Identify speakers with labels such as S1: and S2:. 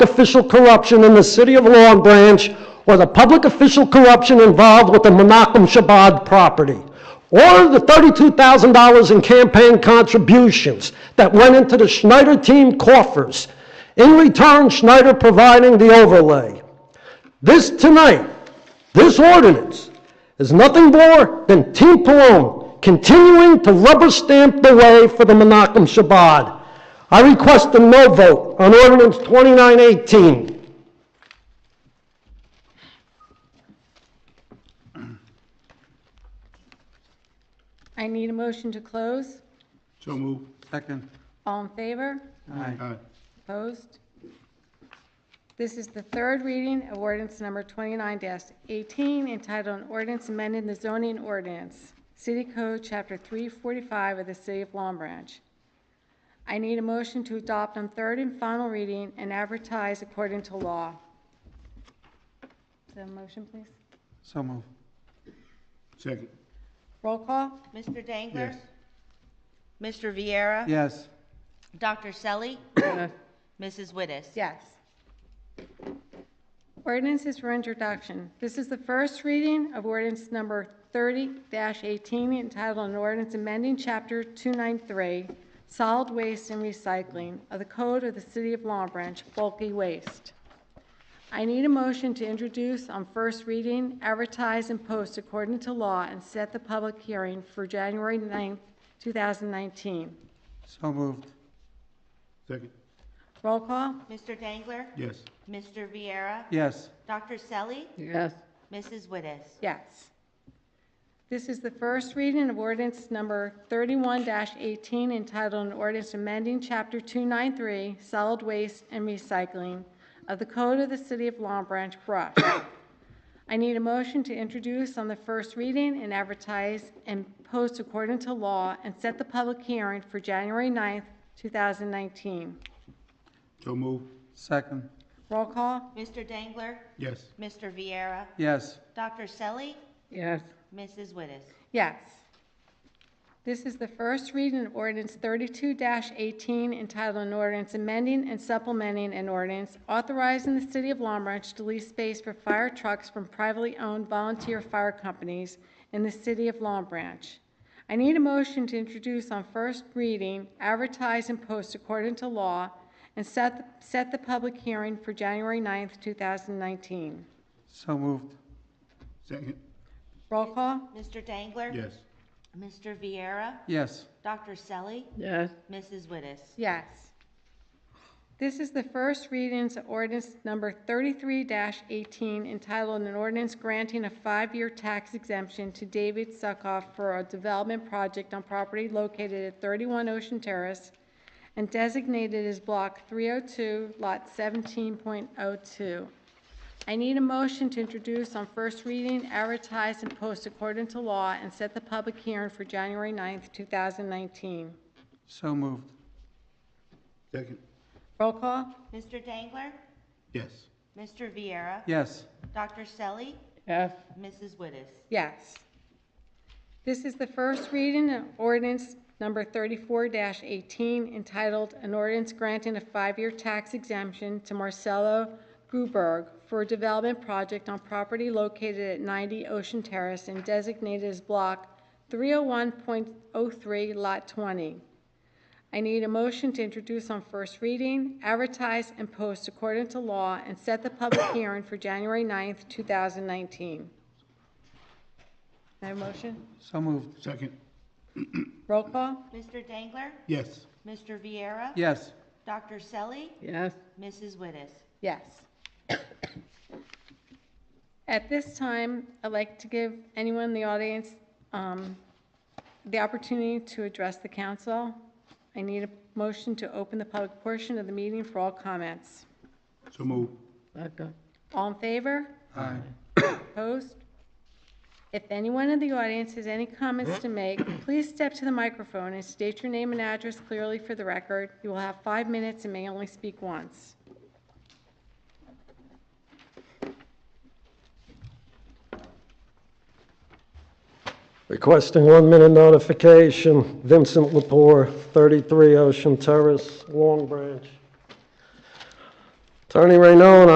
S1: official corruption in the city of Long Branch or the public official corruption involved with the Menachem Shabbat property, or the $32,000 in campaign contributions that went into the Schneider team coffers, in return Schneider providing the overlay. This tonight, this ordinance, is nothing more than Team Cologne continuing to rubber stamp the way for the Menachem Shabbat. I request a no vote on ordinance 2918.
S2: I need a motion to close.
S3: So move.
S4: Second.
S2: All in favor?
S4: Aye.
S3: Aye.
S2: Opposed? This is the third reading of ordinance number 29-18, entitled an ordinance amending the zoning ordinance, City Code, Chapter 345 of the City of Long Branch. I need a motion to adopt on third and final reading and advertise according to law. Is there a motion, please?
S4: So move.
S3: Second.
S2: Roll call?
S5: Mr. Dangler? Mr. Viera?
S4: Yes.
S5: Dr. Selly? Mrs. Wittes?
S2: Yes. Ordinance is for introduction. This is the first reading of ordinance number 30-18 entitled an ordinance amending chapter 293, solid waste and recycling of the code of the city of Long Branch, bulky waste. I need a motion to introduce on first reading, advertise and post according to law, and set the public hearing for January 9th, 2019.
S4: So moved.
S3: Second.
S2: Roll call?
S5: Mr. Dangler?
S3: Yes.
S5: Mr. Viera?
S4: Yes.
S5: Dr. Selly?
S2: Yes.
S5: Mrs. Wittes?
S2: Yes. This is the first reading of ordinance number 31-18 entitled an ordinance amending Chapter 293, Solid Waste and Recycling of the Code of the City of Long Branch, Brush. I need a motion to introduce on the first reading and advertise and post according to law and set the public hearing for January 9th, 2019.
S3: So move.
S4: Second.
S2: Roll call?
S5: Mr. Dangler?
S3: Yes.
S5: Mr. Viera?
S4: Yes.
S5: Dr. Selly?
S2: Yes.
S5: Mrs. Wittes?
S2: Yes. This is the first reading of ordinance thirty-two eighteen entitled an ordinance amending and supplementing an ordinance authorizing the city of Long Branch to lease space for fire trucks from privately owned volunteer fire companies in the city of Long Branch. I need a motion to introduce on first reading, advertise and post according to law, and set, set the public hearing for January 9th, two thousand nineteen.
S4: So moved.
S3: Second.
S2: Roll call?
S5: Mr. Dangler?
S3: Yes.
S5: Mr. Viera?
S4: Yes.
S5: Dr. Selly?
S2: Yes.
S5: Mrs. Wittes?
S2: Yes. This is the first readings of ordinance number 33-18 entitled an ordinance granting a five-year tax exemption to David Suckoff for a development project on property located at 31 Ocean Terrace and designated as Block 302, Lot 17.02. I need a motion to introduce on first reading, advertise, and post according to law, and set the public hearing for January 9th, 2019.
S4: So moved.
S3: Second.
S2: Roll call?
S5: Mr. Dangler?
S3: Yes.
S5: Mr. Viera?
S4: Yes.
S5: Dr. Selly?
S2: Yes.
S5: Mrs. Wittes?
S2: Yes. This is the first reading of ordinance number 34-18 entitled, "An Ordinance Granting a Five-Year Tax Exemption to Marcelo Gruberg for a Development Project on Property Located at 90 Ocean Terrace and Designated as Block 301.03, Lot 20." I need a motion to introduce on first reading, advertise and post according to law, and set the public hearing for January 9th, 2019. Can I have a motion?
S4: So moved.
S3: Second.
S2: Roll call?
S5: Mr. Dangler?
S3: Yes.
S5: Mr. Viera?
S4: Yes.
S5: Dr. Selly?
S2: Yes.
S5: Mrs. Wittes?
S2: Yes. At this time, I'd like to give anyone in the audience um, the opportunity to address the council. I need a motion to open the public portion of the meeting for all comments.
S3: So move.
S2: All in favor?
S4: Aye.
S2: Opposed? If anyone in the audience has any comments to make, please step to the microphone and state your name and address clearly for the record. You will have five minutes and may only speak once.
S1: Requesting one-minute notification, Vincent Lepore, 33 Ocean Terrace, Long Branch. Attorney Raynon,